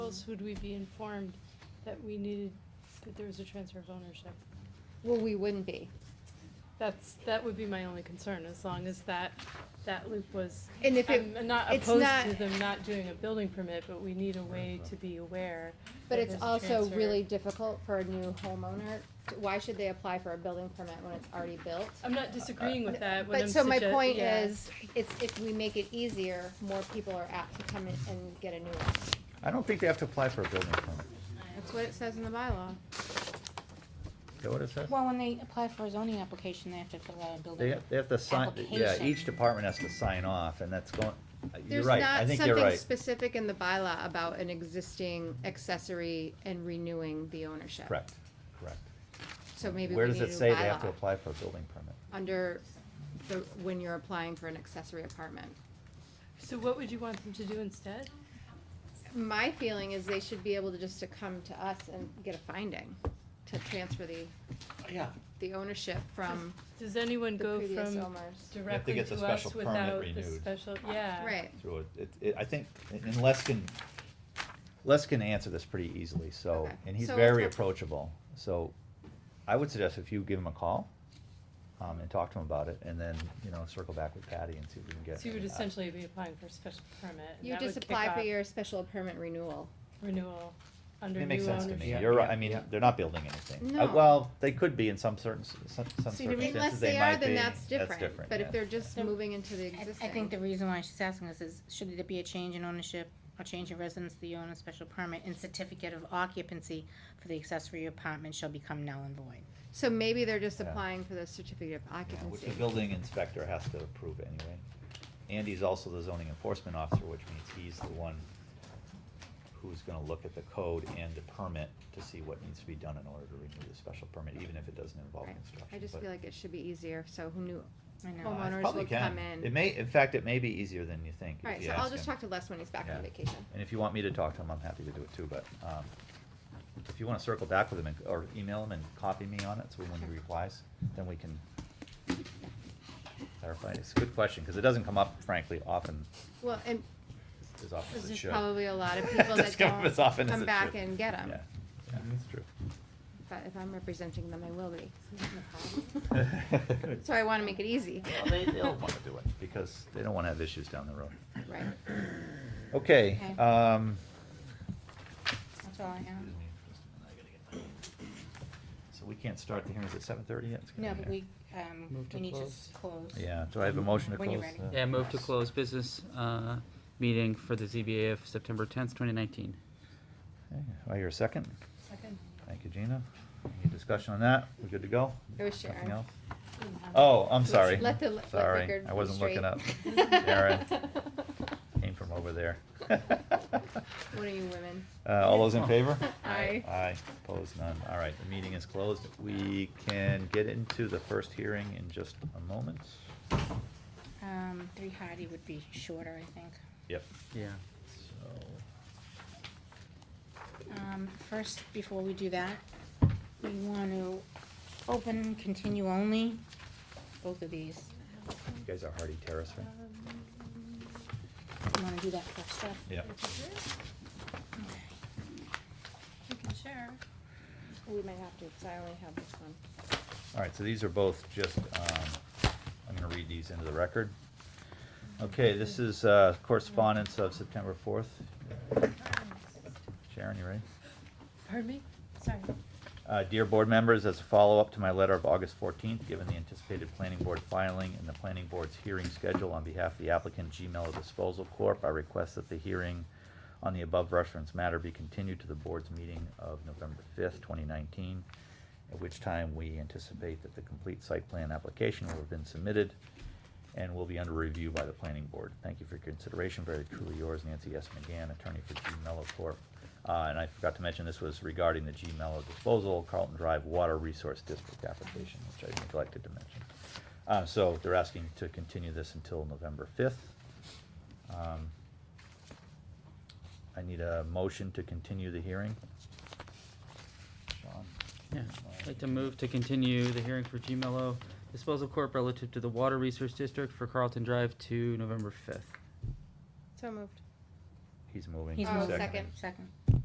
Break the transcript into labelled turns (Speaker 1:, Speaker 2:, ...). Speaker 1: else would we be informed that we needed, that there was a transfer of ownership?
Speaker 2: Well, we wouldn't be.
Speaker 1: That's, that would be my only concern, as long as that, that loop was.
Speaker 2: And if it,
Speaker 1: I'm not
Speaker 2: it's
Speaker 1: opposed
Speaker 2: not-
Speaker 1: to them not doing a building permit, but we need a way to be aware.
Speaker 2: but
Speaker 1: that
Speaker 2: it's
Speaker 1: there's a
Speaker 2: also
Speaker 1: transfer.
Speaker 2: really difficult for a new homeowner. Why should they apply for a building permit when it's already built?
Speaker 1: I'm not disagreeing with that, what I'm
Speaker 2: Uh, But so my
Speaker 1: sugge-
Speaker 2: point
Speaker 1: yeah.
Speaker 2: is, it's, if we make it easier, more people are apt to come in and get a new one.
Speaker 3: I don't think they have to apply for a building permit.
Speaker 2: That's what it says in the bylaw.
Speaker 3: Is that what it says?
Speaker 4: Well, when they apply for a zoning application, they have to fill out a
Speaker 3: They
Speaker 4: building.
Speaker 3: have, they have to sign, yeah, each
Speaker 4: Application.
Speaker 3: department has to sign off, and that's going, you're
Speaker 2: There's
Speaker 3: right, I
Speaker 2: not
Speaker 3: think you're
Speaker 2: something
Speaker 3: right.
Speaker 2: specific in the bylaw about an existing accessory and renewing the ownership.
Speaker 3: Correct, correct.
Speaker 2: So maybe we
Speaker 3: Where
Speaker 2: need a
Speaker 3: does
Speaker 2: new
Speaker 3: it say they have to
Speaker 2: bylaw.
Speaker 3: apply for a building permit?
Speaker 2: Under the, when you're applying for an accessory apartment.
Speaker 1: So what would you want them to do instead?
Speaker 2: My feeling is they should be able to just to come to us and get a finding to transfer the,
Speaker 3: Yeah.
Speaker 2: the ownership from
Speaker 1: Does anyone
Speaker 2: the
Speaker 1: go
Speaker 2: previous
Speaker 1: from
Speaker 2: owners.
Speaker 1: directly
Speaker 3: get the
Speaker 1: to us
Speaker 3: special permit
Speaker 1: without the
Speaker 3: renewed.
Speaker 1: special, yeah?
Speaker 2: Right,
Speaker 3: Through it, it, it, I think, and Les can, Les can answer this pretty easily, so,
Speaker 2: Okay.
Speaker 3: and he's
Speaker 2: So
Speaker 3: very
Speaker 2: let's have-
Speaker 3: approachable, so I would suggest if you give him a call, um, and talk to him about it, and then, you know, circle back with Patty and see if we can get.
Speaker 1: So you would
Speaker 3: uh,
Speaker 1: essentially be applying for a special permit. and
Speaker 2: you
Speaker 1: that
Speaker 2: just
Speaker 1: would kick
Speaker 2: apply for
Speaker 1: off
Speaker 2: your special permit renewal.
Speaker 1: Renewal under new
Speaker 3: It
Speaker 1: ownership.
Speaker 3: makes sense to me,
Speaker 5: Yeah,
Speaker 3: you're right,
Speaker 5: yeah,
Speaker 3: I mean,
Speaker 5: yeah.
Speaker 3: they're not building anything. Uh,
Speaker 2: No.
Speaker 3: Well, they could be in some certain, s- some some
Speaker 1: See, the re-
Speaker 3: circumstances,
Speaker 2: Unless
Speaker 3: they
Speaker 2: they are,
Speaker 3: might be,
Speaker 2: then that's
Speaker 3: that's
Speaker 2: different,
Speaker 3: different,
Speaker 2: but if
Speaker 3: yeah.
Speaker 2: they're just
Speaker 4: So,
Speaker 2: moving into the
Speaker 4: I-
Speaker 2: existing.
Speaker 4: I think the reason why she's asking us is, should there be a change in ownership, or change in residence, the owner special permit and certificate of occupancy for the accessory apartment shall become null and void?
Speaker 2: So maybe they're just
Speaker 3: Yeah.
Speaker 2: applying for the certificate of
Speaker 3: Yeah, Which
Speaker 2: occupancy.
Speaker 3: the building inspector has to approve anyway. Andy's also the zoning enforcement officer, which means he's the one who's gonna look at the code and the permit to see what needs to be done in order to renew the special permit, even if it doesn't involve
Speaker 2: Right.
Speaker 3: construction.
Speaker 2: I just
Speaker 3: but-
Speaker 2: feel like it should be easier, so who knew,
Speaker 4: I know.
Speaker 3: Uh, it
Speaker 2: homeowners
Speaker 3: probably
Speaker 2: will
Speaker 3: can.
Speaker 2: come in.
Speaker 3: It may, in fact, it may be easier than you think. if
Speaker 2: alright,
Speaker 3: you
Speaker 2: so I'll
Speaker 3: ask
Speaker 2: just
Speaker 3: him.
Speaker 2: talk to Les when he's back
Speaker 3: Yeah.
Speaker 2: from vacation.
Speaker 3: And if you want me to talk to him, I'm happy to do it too, but, um, if you wanna circle back with him and, or email him and copy me on it, so when he
Speaker 2: Sure.
Speaker 3: replies, then we can clarify. It's a good question, cause it doesn't come up frankly often
Speaker 2: Well, and
Speaker 3: as- as often
Speaker 2: there's
Speaker 3: as it
Speaker 2: just
Speaker 3: should.
Speaker 2: probably a lot of people that
Speaker 3: Doesn't come up as often
Speaker 2: don't
Speaker 3: as
Speaker 2: come
Speaker 3: it
Speaker 2: back
Speaker 3: should.
Speaker 2: and get them,
Speaker 3: Yeah, yeah, that's true.
Speaker 2: but if I'm representing them, I will be. So I wanna make it easy.
Speaker 3: Well, they, they'll wanna do it, because they don't wanna have issues down the road.
Speaker 2: Right,
Speaker 3: Okay,
Speaker 4: Okay.
Speaker 3: um,
Speaker 4: That's all I have.
Speaker 3: Excuse me just a minute, I gotta get my- So we can't start the hearings at seven thirty yet? It's gonna
Speaker 4: No,
Speaker 3: be
Speaker 4: but
Speaker 3: here.
Speaker 4: we, um,
Speaker 5: Move to
Speaker 4: we need to
Speaker 5: close.
Speaker 4: s- close.
Speaker 3: Yeah, do I have a motion to
Speaker 4: When
Speaker 3: close?
Speaker 4: you're
Speaker 3: uh,
Speaker 4: ready.
Speaker 5: Yeah, move to close business uh, meeting for the ZBA of September 10th, 2019.
Speaker 3: okay. Do I hear a second?
Speaker 1: Second.
Speaker 3: Thank you, Gina. Any discussion on that? We're good to go?
Speaker 2: it was
Speaker 3: Nothing
Speaker 2: Sharon.
Speaker 3: else? Oh, I'm sorry.
Speaker 2: Let the, let the
Speaker 3: Sorry,
Speaker 2: record
Speaker 3: I
Speaker 2: be
Speaker 3: wasn't looking
Speaker 2: straight.
Speaker 3: up. Sharon. Came from over there.
Speaker 2: What are you women?
Speaker 3: Uh, all those in favor?
Speaker 2: Aye.
Speaker 3: Aye, opposed, none. All right, the meeting is closed. We can get into the first hearing in just a moment.
Speaker 4: Um, three Hardy would be shorter, I think.
Speaker 3: Yep.
Speaker 5: Yeah.
Speaker 3: So,
Speaker 4: Um, first, before we do that, we want to open, continue only, both of these.
Speaker 3: you guys are Hardy Terrace, right?
Speaker 4: You wanna do that first, Jeff?
Speaker 3: Yep.
Speaker 4: Okay. You can share.
Speaker 2: We might have to, cause I only have this one.
Speaker 3: All right, so these are both just, um, I'm gonna read these into the record. Okay, this is uh, correspondence of September fourth. Sharon, you ready?
Speaker 1: Pardon me?
Speaker 4: Sorry.
Speaker 3: Uh, Dear Board members, as a follow-up to my letter of August 14th, given the anticipated planning board filing and the planning board's hearing schedule on behalf of the applicant G Mello Disposal Corp., I request that the hearing on the above referenced matter be continued to the board's meeting of November 5th, 2019, at which time we anticipate that the complete site plan application will have been submitted and will be under review by the planning board. Thank you for your consideration. Very truly yours, Nancy S. McGann, attorney for G Mello Corp. Uh, and I forgot to mention, this was regarding the G Mello disposal Carlton Drive Water Resource District application, which I neglected to mention. Uh, so they're asking to continue this until November fifth. Um, I need a motion to continue the hearing. Sean?
Speaker 5: Yeah, I'd like to move to continue the hearing for G Mello Disposal Corp. relative to the Water Resource District for Carlton Drive to November 5th.
Speaker 2: So moved.
Speaker 3: He's moving.
Speaker 4: He's
Speaker 2: Oh,
Speaker 4: moving.
Speaker 3: Second.
Speaker 2: second.
Speaker 4: Oh, Second.